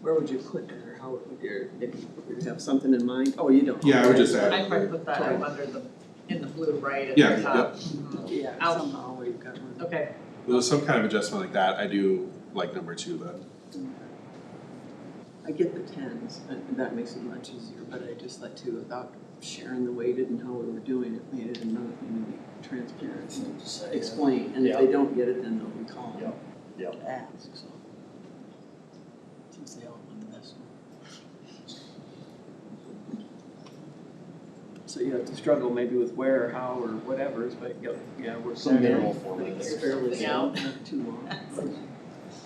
Where would you put that, or how would you, if you have something in mind? Oh, you don't. Yeah, I would just I probably add, put that up under the, in the blue, right, at Yeah, the top. Mhm. Yeah, Out. somehow we've got one. Okay, with some kind of adjustment like that, I do like number two then. I get the tens, and that makes it much easier, but I just like to, without sharing the weighted and how we were doing it, we had another thing to be transparent and explain, and if they don't get it, then they'll be calling. Yep, yep. To ask, so. Since they all won the best one. So you have to struggle maybe with where or how or whatever, but yeah, yeah, we're. Some minimal format. It's fairly Yeah. long, not too long.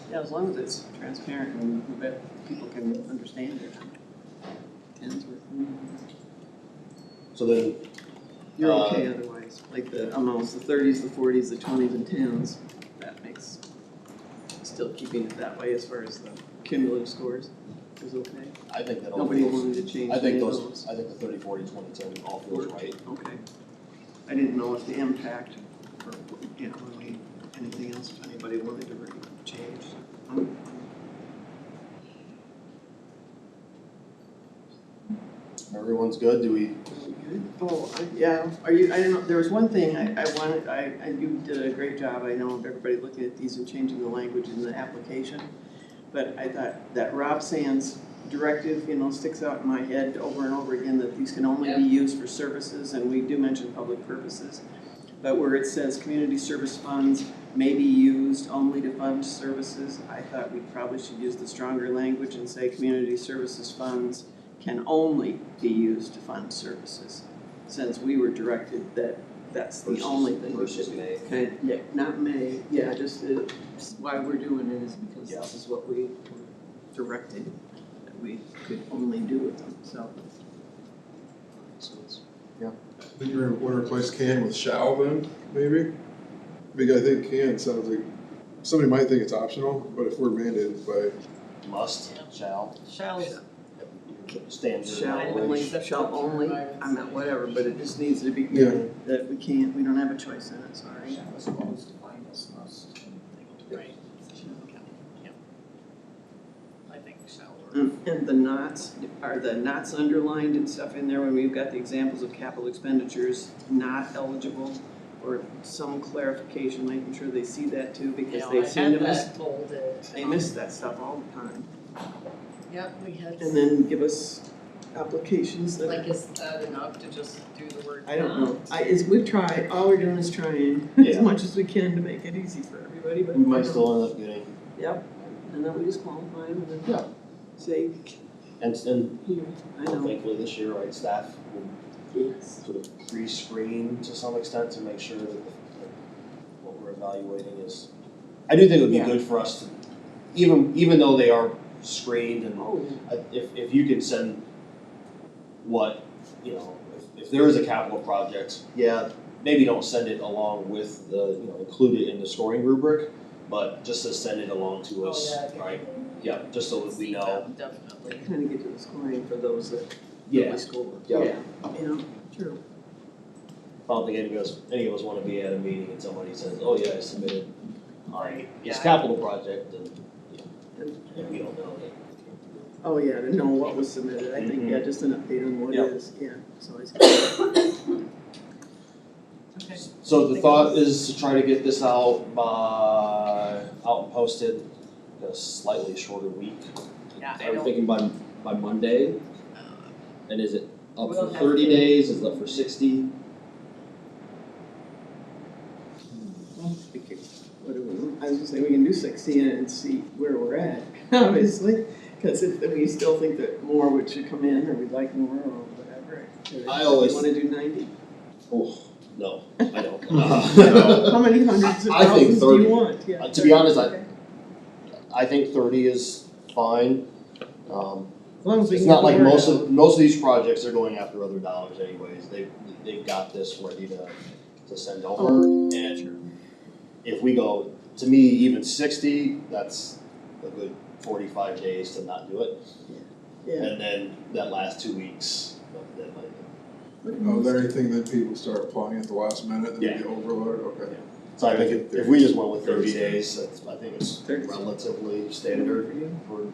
Yeah, as long as it's transparent and we bet people can understand it. Tens were, mm-hmm. So then, you're Uh, okay otherwise, like the amounts, the thirties, the forties, the twenties and tens, that makes, still keeping it that way as far as the cumulative scores is okay. I think that all Nobody feels, wanted to change I any think of those, those. I think the thirty, forty, twenty, ten all feels Work. right. Okay. I didn't know if the impact or, you know, really anything else, if anybody wanted to really change. Um, Everyone's good, do we, Good. Oh, I- yeah, are you, I don't know, there was one thing I, I wanted, I, I, you did a great job, I know, of everybody looking at these and changing the language in the application. But I thought that Rob Sands directive, you know, sticks out in my head over and over again, that these can only be used for services, and we do mention public purposes. But where it says community service funds may be used only to fund services, I thought we probably should use the stronger language and say community services funds can only be used to fund services, since we were directed that that's the Versus- only thing we should versus do. may. Okay, yeah, not may, yeah, just uh, s- why we're doing it is because Yeah. this is what we were directed, that we could only do with them, so. Think you're gonna wanna replace can with shall then, maybe? Because I think can sounds like, somebody might think it's optional, but if we're mandated by, must, shall, Shell's standard Shall I only, language? believe- shall only, I'm not whatever, but it just needs to be, Yeah. that we can't, we don't have a choice in it, sorry. was always defined as must. Right. Yep. I think shall work. Um, And the knots, are the knots underlined and stuff in there when we've got the examples of capital expenditures not eligible? Or some clarification, making sure they see that too, because they seem to Yeah, I miss, had that bolded. they miss that stuff all the time. Yep, we had, And then give us applications that, like, is that enough to just do the word? I don't not? know, I, is, we've tried, all we're doing is trying as Yeah. much as we can to make it easy for everybody, but. We might still end up getting, Yep, and then we just qualify them and Yeah. then say, and, and here, I know, thankfully this year, right, staff will yes, sort of pre-screen to some extent to make sure that the- that what we're evaluating is. I do think it would be Yeah. good for us to, even, even though they are screened and oh, yeah. I- if, if you could send what, you know, if, if there is a capital project, yeah, maybe don't send it along with the, you know, include it in the scoring rubric, but just to send it along to Oh, us, yeah, I think- right? Yeah, just so that we know. Definitely. kind of get to the scoring for those that Yeah, really score. Yeah. Yeah, you know, true. I don't think any of us, any of us wanna be at a meeting and somebody says, oh yeah, I submitted, alright, it's Yeah. capital project, and, And- and we don't know that. Oh, yeah, to know what was submitted, I think, yeah, just an update on what Mm-hmm. Yeah. is, yeah, it's always. Okay. So the thought is to try to get this out by, out and posted, in a slightly shorter week. Yeah, I I'm don't- thinking by, by Monday, Uh, and is it up We for don't have thirty to- days, is it up for sixty? We could- What do we, want? I was just saying, we can do sixteen and see where we're at, obviously, because if we still think that more would should come in, or we'd like more, or whatever. I always- Want to do ninety? Oh, no, I don't. How many hundreds of I- I think thousands do 30. you want? Yeah, Uh, to be honest, I- 30, okay. I think thirty is fine, um, As long as we It's can not like get more most out. of, most of these projects are going after other dollars anyways, they, they've got this ready to, to send over, and if we go, to me, even sixty, that's a good forty-five days to not do it, Yeah. and then that last two weeks, that might, oh, is there anything that people start applying at the last minute and they Yeah. get overloaded, okay? so I think if, if we just went with thirty days, that's, I think it's Thirty. relatively standard for